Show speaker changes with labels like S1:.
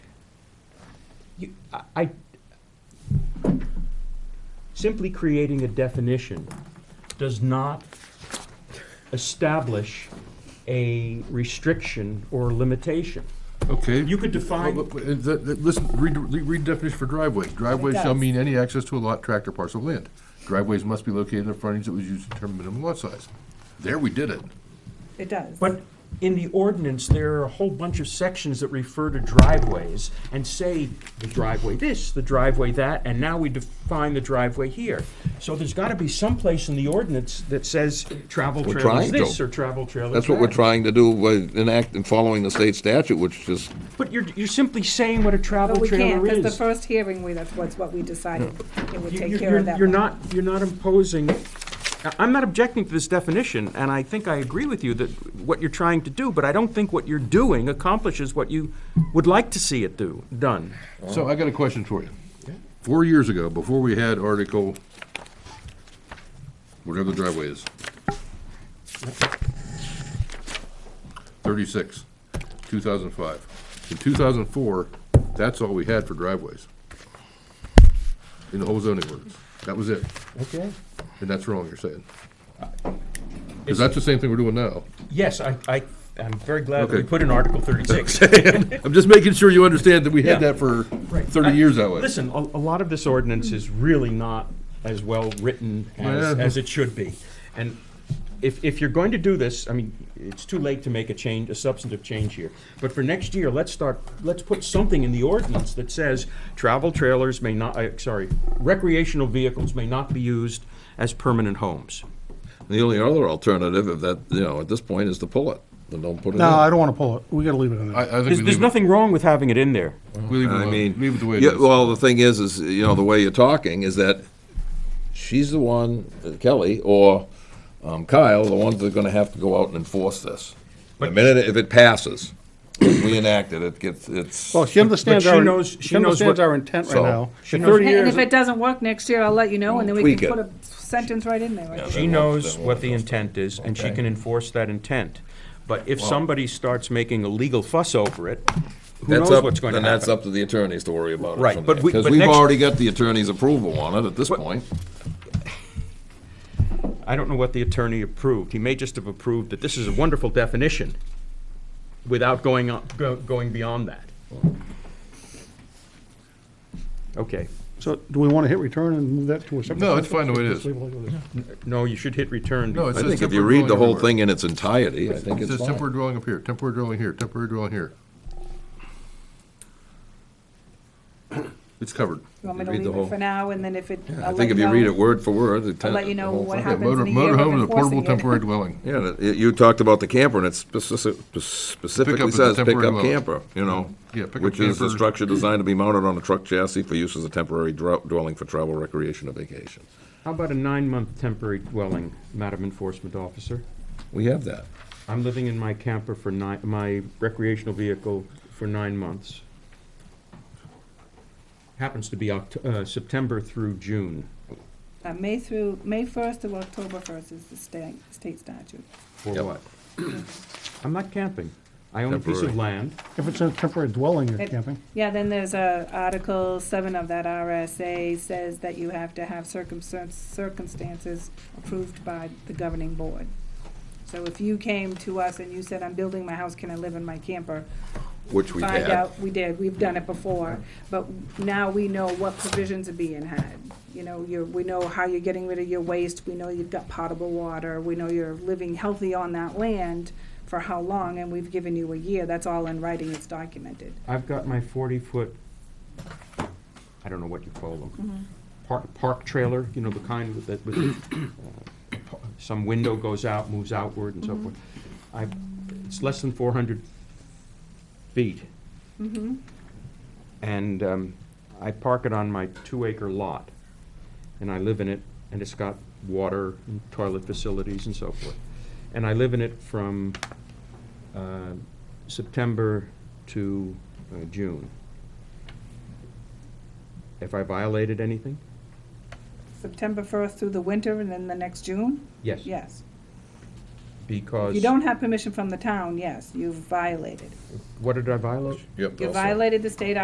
S1: you, I- I, simply creating a definition does not establish a restriction or limitation.
S2: Okay.
S1: You could
S2: Well,
S1: define,
S2: but- but, uh, th- th- Listen, read, read read definition for driveway. Driveway shall
S3: does.
S2: mean any access to a lot, tract, or parcel of land. Driveways must be located in the frontage that was used to determine minimum lot size. There we did it.
S3: It does.
S1: but in the ordinance, there are a whole bunch of sections that refer to driveways and say the driveway this, the driveway that, and now we define the driveway here. So there's gotta be some place in the ordinance that says travel
S4: We're
S1: trail is
S4: trying to.
S1: this or travel trail is that.
S4: That's what we're trying to do, by enact and following the state statute, which is,
S1: But you're, you're simply saying what a travel
S3: But we can't,
S1: trailer
S3: because
S1: is.
S3: the first hearing, we, that's what's what we decided, and we
S1: You-
S3: take
S1: you-
S3: care
S1: you're-
S3: of that.
S1: You're
S3: one.
S1: not, you're not imposing, I- I'm not objecting to this definition, and I think I agree with you that what you're trying to do, but I don't think what you're doing accomplishes what you would like to see it do, done.
S2: So I got a question for you. Four years ago, before we had Article, whatever the driveway is, thirty-six, two thousand five. In two thousand four, that's all we had for driveways in the whole zoning ordinance. That was it.
S1: Okay.
S2: And that's wrong, you're saying? Because that's the same thing we're doing now.
S1: Yes, I, I, I'm very glad that we
S2: Okay.
S1: put in Article thirty-six.
S2: I'm just making sure you understand that we had
S1: Yeah.
S2: that for
S1: Right. I-
S2: thirty years that way.
S1: Listen, a, a lot of this ordinance is really not as well-written as,
S2: Yeah.
S1: as it should be. And if, if you're going to do this, I mean, it's too late to make a change, a substantive change here. But for next year, let's start, let's put something in the ordinance that says travel trailers may not, uh, sorry, recreational vehicles may not be used as permanent homes.
S4: the only other alternative of that, you know, at this point, is to pull it, then don't put it in.
S5: No, I don't want to pull it. We got to leave it in
S2: I, I
S5: there.
S2: think we
S1: There's, there's
S2: leave it,
S1: nothing wrong with having it in there.
S2: we leave it
S4: I
S2: alone.
S4: mean.
S2: leave it the way it
S4: yeah,
S2: is.
S4: Well, the thing is, is, you know, the way you're talking is that she's the one, uh, Kelly or um, Kyle, the ones that are gonna have to go out and enforce this. The minute, if it passes, if we enact it, it gets, it's,
S5: Well, she understands
S1: she
S5: our,
S1: knows-
S5: she
S1: she knows
S5: understands
S1: what-
S5: our intent right
S4: So-
S5: now.
S1: She
S5: In
S1: knows-
S5: 30
S3: And and if
S5: years-
S3: it doesn't work next year, I'll let you know, and then we
S4: Tweak
S3: can
S4: it.
S3: put a sentence right in there.
S1: She knows what the intent is, and she
S4: Okay.
S1: can enforce that intent. But if somebody starts making a legal fuss over it, who
S4: that's
S1: knows
S4: up,
S1: what's going to
S4: then
S1: happen?
S4: that's up to the attorneys to worry about it.
S1: Right,
S4: from
S1: but
S4: there.
S1: we-
S4: Cause
S1: but
S4: we've
S1: next-
S4: already got the attorney's approval on it at this
S1: But-
S4: point.
S1: I don't know what the attorney approved. He may just have approved that this is a wonderful definition without going, on- go- going beyond that. Okay.
S5: So do we want to hit return and move that to a separate?
S2: No, it's fine the way it
S5: Just
S2: is.
S5: leave it like it is.
S1: No, you should hit return.
S2: No, it's
S4: I
S2: just
S4: think if you
S2: temporary
S4: read the
S2: dwelling
S4: whole
S2: everywhere.
S4: thing in its entirety, I think
S2: It
S4: it's
S2: says
S4: fine.
S2: temporary dwelling up here, temporary dwelling here, temporary dwelling here. It's covered.
S3: You want me to
S4: Read the
S3: leave
S4: whole-
S3: it for now, and then if it,
S4: I
S3: I'll let
S4: think
S3: you
S4: if you
S3: know.
S4: read it word for word, the ten-
S3: let you
S4: the
S3: know
S4: whole
S3: what
S4: thing.
S2: Yeah,
S3: Happens
S2: motor,
S3: in a year of
S2: motorhome is a
S3: enforcing
S2: portable
S3: it.
S2: temporary dwelling.
S4: Yeah, that- y- you talked about the camper, and it speci-
S2: Pickup
S4: specifically
S2: is a
S4: says
S2: temporary
S4: pickup
S2: dwelling.
S4: camper, you know?
S2: Yeah, pickup
S4: Which is a
S2: camper.
S4: structure designed to be mounted on a truck chassis for use as a temporary dro- dwelling for travel, recreation, or vacation.
S1: How about a nine-month temporary dwelling, Madam Enforcement Officer?
S4: We have that.
S1: I'm living in my camper for nine, my recreational vehicle for nine months. Happens to be Oct- uh, September through June,
S3: Uh, May through, May first to October first is the state, state statute.
S1: for
S4: Yep.
S1: what? I'm not camping. I own a piece of
S4: Temporary.
S1: land.
S5: If it's a temporary dwelling, you're
S3: It-
S5: camping.
S3: Yeah, then there's a Article seven of that RSA says that you have to have circumstan- circumstances approved by the governing board. So if you came to us and you said, I'm building my house, can I live in my camper?
S4: Which we
S3: Find
S4: had.
S3: out, we did, we've done it before, but now we know what provisions are being had. You know, you're, we know how you're getting rid of your waste, we know you've got potable water, we know you're living healthy on that land for how long, and we've given you a year, that's all in writing, it's documented.
S1: I've got my forty-foot, I don't know what you call them, park, park trailer, you know, the kind with, that- with, uh, pa- some window goes out, moves outward and so forth. I, it's less than four hundred feet. And, um, I park it on my two-acre lot, and I live in it, and it's got water and toilet facilities and so forth. And I live in it from uh, September to uh, June. Have I violated anything?
S3: September first through the winter and then the next June?
S1: Yes.
S3: Yes.
S1: Because.
S3: You don't have permission from the town, yes, you've violated.
S1: What did I violate?
S4: Yep,
S3: You
S4: also.
S3: violated the state